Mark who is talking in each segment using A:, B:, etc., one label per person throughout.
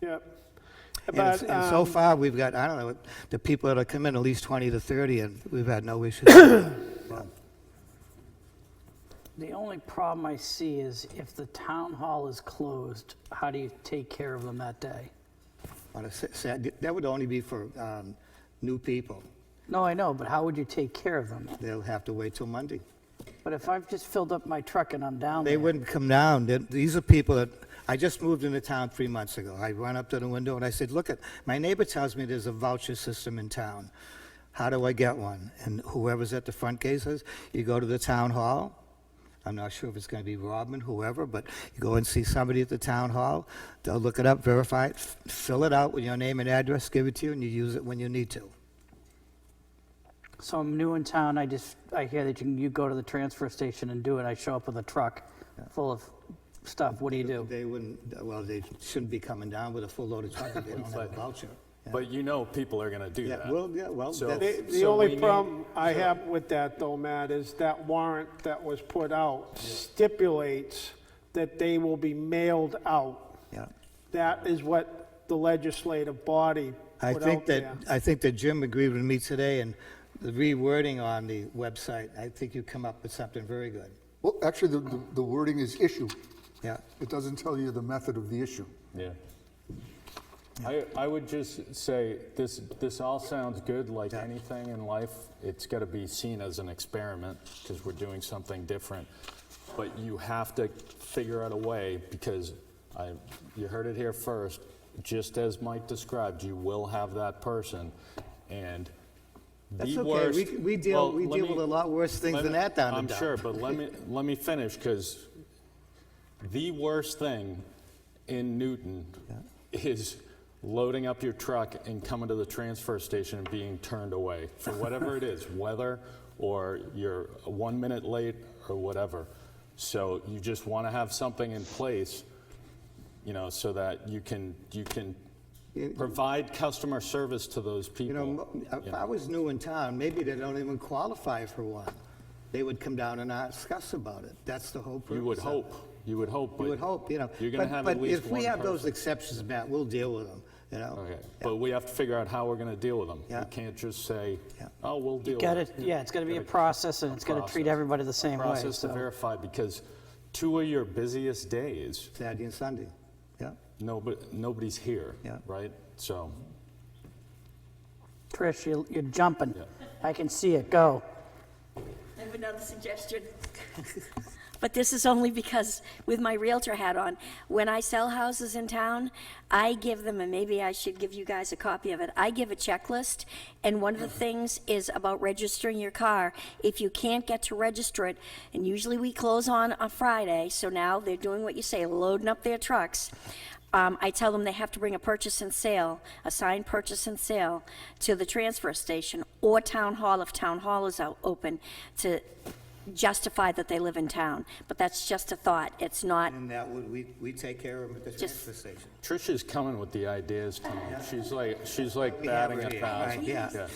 A: Yep.
B: And, it's-
A: But,
B: and so
A: um,
B: far, we've got, I don't know, the people that have come in, at least 20 to 30, and we've had no issues. Yeah.
C: The only problem I see is if the town hall is closed, how do you take care of them that day?
B: On a sa- sa- That would only be for um, new people.
C: No, I know, but how would you take care of them?
B: They'll have to wait till Monday.
C: But if I've just filled up my truck and I'm down
B: They
C: there,
B: wouldn't come down. They- These are people that, I just moved into town three months ago. I went up to the window and I said, look, at my neighbor tells me there's a voucher system in town. How do I get one? And whoever's at the front gate says, you go to the town hall. I'm not sure if it's going to be Robin, whoever, but you go and see somebody at the town hall. They'll look it up, verify it, f- fill it out with your name and address, give it to you, and you use it when you need to.
C: so I'm new in town, I just, I hear that you, can- you go to the transfer station and do it, I show up with a truck full of stuff, what do you do?
B: They wouldn't, well, they shouldn't be coming down with a full load of truck if they don't have a voucher.
D: But you know people are going to do
B: Yeah,
D: that.
B: well, yeah, well,
D: So-
B: that-
A: The, the
D: so we
A: only
D: need-
A: problem I have with that though, Matt, is that warrant that was put out stipulates that they will be mailed out.
B: Yeah.
A: That is what the legislative body
B: I
A: put
B: think
A: out
B: that,
A: there.
B: I think that Jim agreed with me today, and the rewording on the website, I think you come up with something very good.
E: Well, actually, the- the the wording is issue.
B: Yeah.
E: It doesn't tell you the method of the issue.
D: Yeah. I, I would just say, this, this all sounds good, like anything in life, it's got to be seen as an experiment, because we're doing something different. But you have to figure out a way, because I, you heard it here first, just as Mike described, you will have that person, and
B: That's
D: the
B: okay, we,
D: worst-
B: c- we deal,
D: well,
B: we
D: let
B: deal with
D: me-
B: a lot worse things
D: let
B: than
D: me-
B: that down in
D: I'm
B: Dow.
D: sure, but let me, let me finish, because the worst thing in Newton is loading up your truck and coming to the transfer station and being turned away for whatever it is, weather or you're one minute late or whatever. So you just want to have something in place, you know, so that you can, you can provide customer service to those
B: You
D: people.
B: know, mo- if I was new in town, maybe they don't even qualify for one. They would come down and not discuss about it. That's the whole purpose.
D: You would
B: of
D: hope,
B: it.
D: you would hope, but.
B: You would hope, you know.
D: You're going to
B: but-
D: have at least
B: But if we
D: one
B: have those
D: person.
B: exceptions, Matt, we'll deal with them, you know?
D: Okay, but we have to figure out how we're going to deal with them.
B: Yeah.
D: We can't just say,
B: Yeah.
D: oh, we'll deal with
C: Got
D: it.
C: it, yeah, it's gotta be a process and it's gotta treat
D: process.
C: everybody the same way,
D: Process to
C: so.
D: verify, because two of your busiest days,
B: Saturday and Sunday, yeah.
D: nobody, nobody's here,
B: Yeah.
D: right? So,
C: Trish, you're, you're jumping, I can see it, go.
F: I have another suggestion. But this is only because, with my Realtor hat on, when I sell houses in town, I give them, and maybe I should give you guys a copy of it, I give a checklist, and one of the things is about registering your car. If you can't get to register it, and usually we close on a Friday, so now they're doing what you say, loading up their trucks. Um, I tell them they have to bring a purchase and sale, a signed purchase and sale, to the transfer station or town hall if town hall is out, open, to justify that they live in town. But that's just a thought. It's not,
B: And that would, we, we take care of them at the transfer station.
D: Tricia's coming with the ideas, Tom. She's like, she's like
B: We have
D: batting a
B: already,
D: thousand.
B: right, yeah.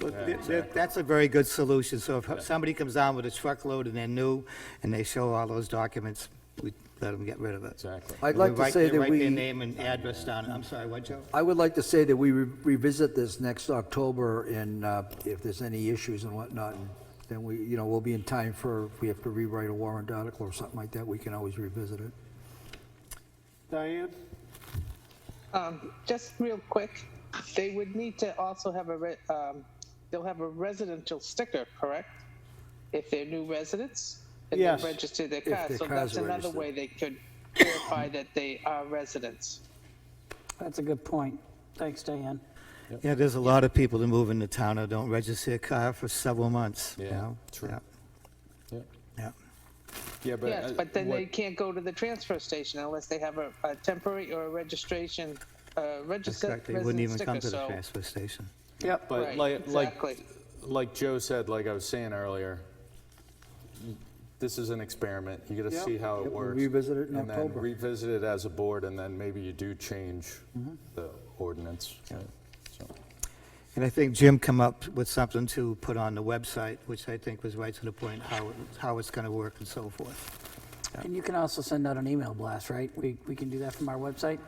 B: Well, th- th- That's a very good solution, so if somebody comes down with a truckload and they're new, and they show all those documents, we let them get rid of it.
D: Exactly.
B: And
G: I'd
B: we
G: like to
B: write-
G: say
B: they
G: that
B: Write their
G: we-
B: name and address down, I'm sorry, what, Joe?
G: I would like to say that we re- revisit this next October and uh, if there's any issues and whatnot, and then we, you know, we'll be in time for, if we have to rewrite a warrant article or something like that, we can always revisit it.
A: Diane?
H: Um, just real quick, they would need to also have a, re- um, they'll have a residential sticker, correct? If they're new residents and
A: Yes.
H: they've registered their
G: If
H: car,
G: their
H: so
G: cars
H: that's
G: are
H: another
G: registered.
H: way they could verify that they are residents.
C: That's a good point, thanks, Diane.
B: Yeah, there's a lot of people that move into town that don't register a car for several months, you
D: Yeah,
B: know?
D: true.
B: Yeah,
D: Yeah.
B: Yeah,
D: Yeah, but.
H: Yes,
D: uh,
H: but then
D: what-
H: they can't go to the transfer station unless they have a, a temporary or a registration, uh,
B: that's
H: registered
B: correct, they wouldn't
H: resident
B: even come
H: sticker,
B: to the
H: so.
B: transfer station.
C: Yep.
D: But
H: Right,
D: like, like,
H: exactly.
D: like Joe said, like I was saying earlier, this is an experiment. You got to see how it
G: Yep, we'll
D: works.
G: revisit it in
D: and
G: October.
D: then revisit it as a board, and then maybe you do change
G: Mm-hmm.
D: the ordinance. right? So.
B: And I think Jim come up with something to put on the website, which I think was right to the point, how, it- how it's gonna work and so forth.
C: And you can also send out an email blast, right? We, we can do that from our website?